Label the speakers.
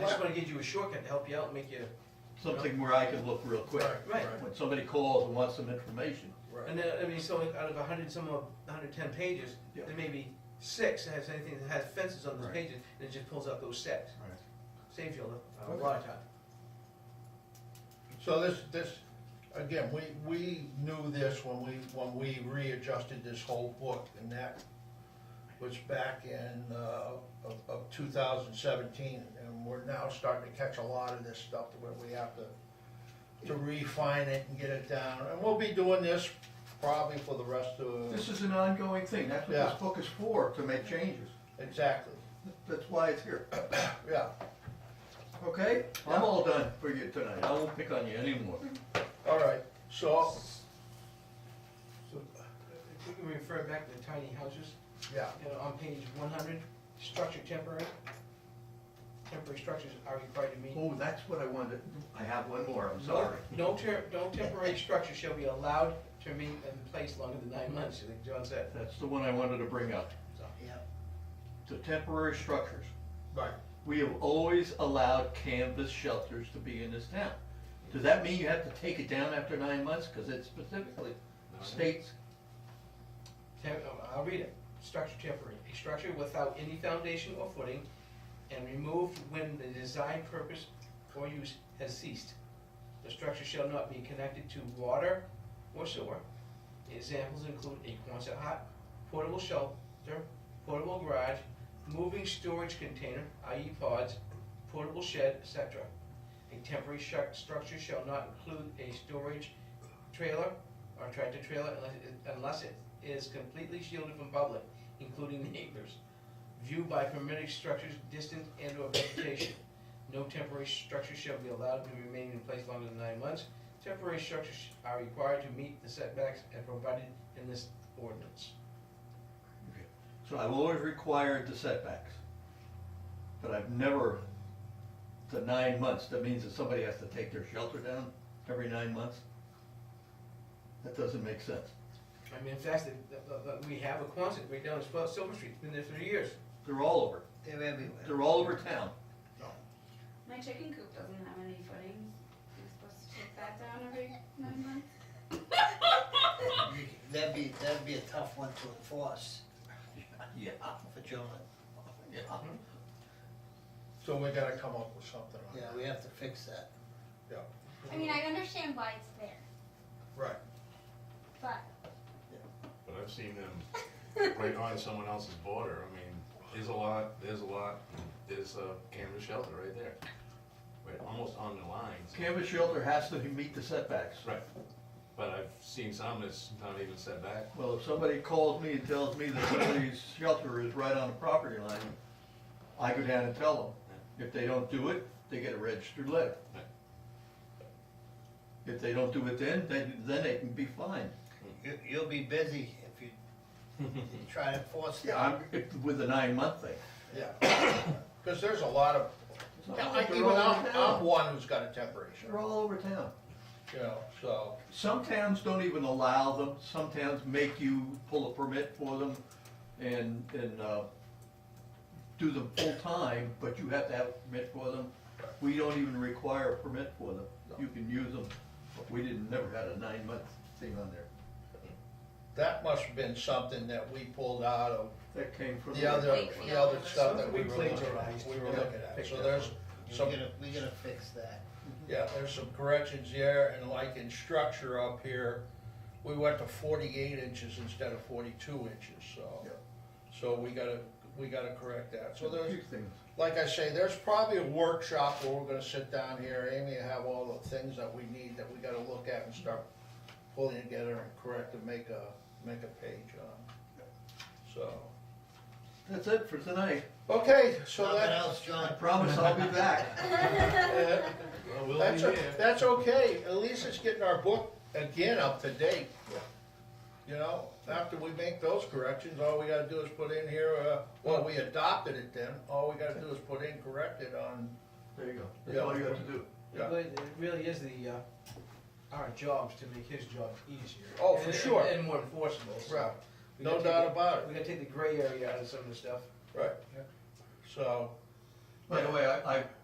Speaker 1: just wanna give you a shortcut to help you out and make you,
Speaker 2: Something where I can look real quick.
Speaker 1: Right.
Speaker 2: When somebody calls and wants some information.
Speaker 1: and then, I mean, so out of a hundred, some of, hundred ten pages,
Speaker 2: Yeah.
Speaker 1: there may be six that has anything that has fences on those
Speaker 3: Right.
Speaker 1: pages, and it just pulls out those sets.
Speaker 3: Right.
Speaker 1: Saves you a lo- a
Speaker 4: Okay.
Speaker 1: lot of time.
Speaker 4: So this, this, again, we, we knew this when we, when we readjusted this whole book, and that was back in, uh, of, of two thousand seventeen, and we're now starting to catch a lot of this stuff to where we have to, to refine it and get it down, and we'll be doing this probably for the rest
Speaker 2: This
Speaker 4: of,
Speaker 2: is an ongoing thing. That's what this
Speaker 4: Yeah.
Speaker 2: book is for, to make changes.
Speaker 4: exactly,
Speaker 2: That's why it's here.
Speaker 4: yeah.
Speaker 2: Okay? I'm all done for you tonight. I won't pick on you anymore.
Speaker 4: All right, so,
Speaker 1: So, uh, if we can refer back to the tiny houses,
Speaker 4: yeah,
Speaker 1: you know, on page one hundred, structure temporary. Temporary structures are required to meet.
Speaker 2: Oh, that's what I wanted. I have one more, Oh, I'm sorry.
Speaker 1: No ter, no temporary structure shall be allowed to remain in place longer than nine months, like John said,
Speaker 2: That's the one I wanted to bring up.
Speaker 1: so.
Speaker 2: The temporary structures.
Speaker 4: right,
Speaker 2: We have always allowed canvas shelters to be in this town. Does that mean you have to take it down after nine months? Because it specifically states,
Speaker 1: Tem- uh, I'll read it. Structure temporary, a structure without any foundation or footing and removed when the design purpose or use has ceased. The structure shall not be connected to water or sewer. Examples include a Quonset hut, portable shelter, portable garage, moving storage container, i.e. pods, portable shed, etc. A temporary shu- structure shall not include a storage trailer or tractor trailer unless it, unless it is completely shielded from public, including neighbors. View by permitted structures, distance and or vegetation. No temporary structure shall be allowed to remain in place longer than nine months. Temporary structures are required to meet the setbacks and provided in this ordinance.
Speaker 2: so I've always required the setbacks. But I've never, the nine months, that means that somebody has to take their shelter down every nine months? That doesn't make sense.
Speaker 1: I mean, in fact, the- the- the- we have a Quonset right down in Silver Street, it's been there for years.
Speaker 2: They're all over,
Speaker 5: They're everywhere.
Speaker 2: they're all over town.
Speaker 6: My chicken coop doesn't have any footings. You're supposed to take that down every nine months.
Speaker 5: You- That'd be, that'd be a tough one to enforce uh,
Speaker 2: Yeah,
Speaker 5: for John.
Speaker 2: yeah.
Speaker 4: so we gotta come up with something on
Speaker 5: Yeah,
Speaker 4: that,
Speaker 5: we have to fix that.
Speaker 7: I mean, I understand why it's there,
Speaker 4: right.
Speaker 7: but
Speaker 3: But I've seen them right on someone else's border, I mean, there's a lot, there's a lot, there's a canvas shelter right there. Right, almost on the lines,
Speaker 2: Canvas shelter has to meet the setbacks.
Speaker 3: right, but I've seen some that's not even set back.
Speaker 2: Well, if somebody calls me and tells me that somebody's shelter is right on the property line, I go down and tell them. If they don't do it, they get a registered letter. If they don't do it then, then, then they can be fined.
Speaker 5: You, you'll be busy if you you try to enforce that.
Speaker 2: I'm, if- with a nine-month thing.
Speaker 4: Yeah, because there's a lot of,
Speaker 2: It's
Speaker 4: Yeah,
Speaker 2: not
Speaker 4: I-
Speaker 2: like they're
Speaker 4: even
Speaker 2: all
Speaker 4: I'm,
Speaker 2: over
Speaker 4: I'm
Speaker 2: town.
Speaker 4: one who's got a temporary
Speaker 2: They're
Speaker 4: shirt,
Speaker 2: all over town.
Speaker 4: you know, so,
Speaker 2: Some towns don't even allow them, some towns make you pull a permit for them and, and, uh, do them full-time, but you have to have a permit for them. We don't even require a permit for them, you can use them, but we didn't, never had a nine-month thing on there.
Speaker 4: that must have been something that we pulled out of
Speaker 2: That came from.
Speaker 4: the other, the other stuff that we were looking,
Speaker 1: Plagiarized.
Speaker 4: we were
Speaker 1: Yeah.
Speaker 4: looking at. So there's
Speaker 5: We
Speaker 4: some,
Speaker 5: gotta, we gotta fix that.
Speaker 4: yeah, there's some corrections there, and like in structure up here, we went to forty-eight inches instead of forty-two inches, so.
Speaker 2: Yeah.
Speaker 4: So we gotta, we gotta correct that, so
Speaker 2: A
Speaker 4: there's,
Speaker 2: few things.
Speaker 4: like I say, there's probably a workshop where we're gonna sit down here, Amy, and have all the things that we need that we gotta look at and start pulling together and correct and make a, make a page on. So,
Speaker 2: That's it for tonight,
Speaker 4: okay, so
Speaker 5: Nothing
Speaker 4: that,
Speaker 5: else,
Speaker 2: I
Speaker 5: John?
Speaker 2: promise I'll be back.
Speaker 4: uh,
Speaker 3: Well, we'll be
Speaker 4: that's, o-
Speaker 3: there.
Speaker 4: that's okay, at least it's getting our book again up to date. You know, after we make those corrections, all we gotta do is put in here, uh, well, we adopted it then, all we gotta do is put in corrected on,
Speaker 2: There you go, that's all you have to do.
Speaker 4: Yeah.
Speaker 1: It really- it really is the, uh, our jobs to make his job easier.
Speaker 4: Oh, for
Speaker 1: and-
Speaker 4: sure.
Speaker 1: And more enforceable, so.
Speaker 4: Right.
Speaker 1: We
Speaker 4: no
Speaker 1: gotta take
Speaker 4: doubt
Speaker 1: the-
Speaker 4: about it.
Speaker 1: We gotta take the gray area out of some of the stuff.
Speaker 4: Right. So,
Speaker 2: By the way, I, I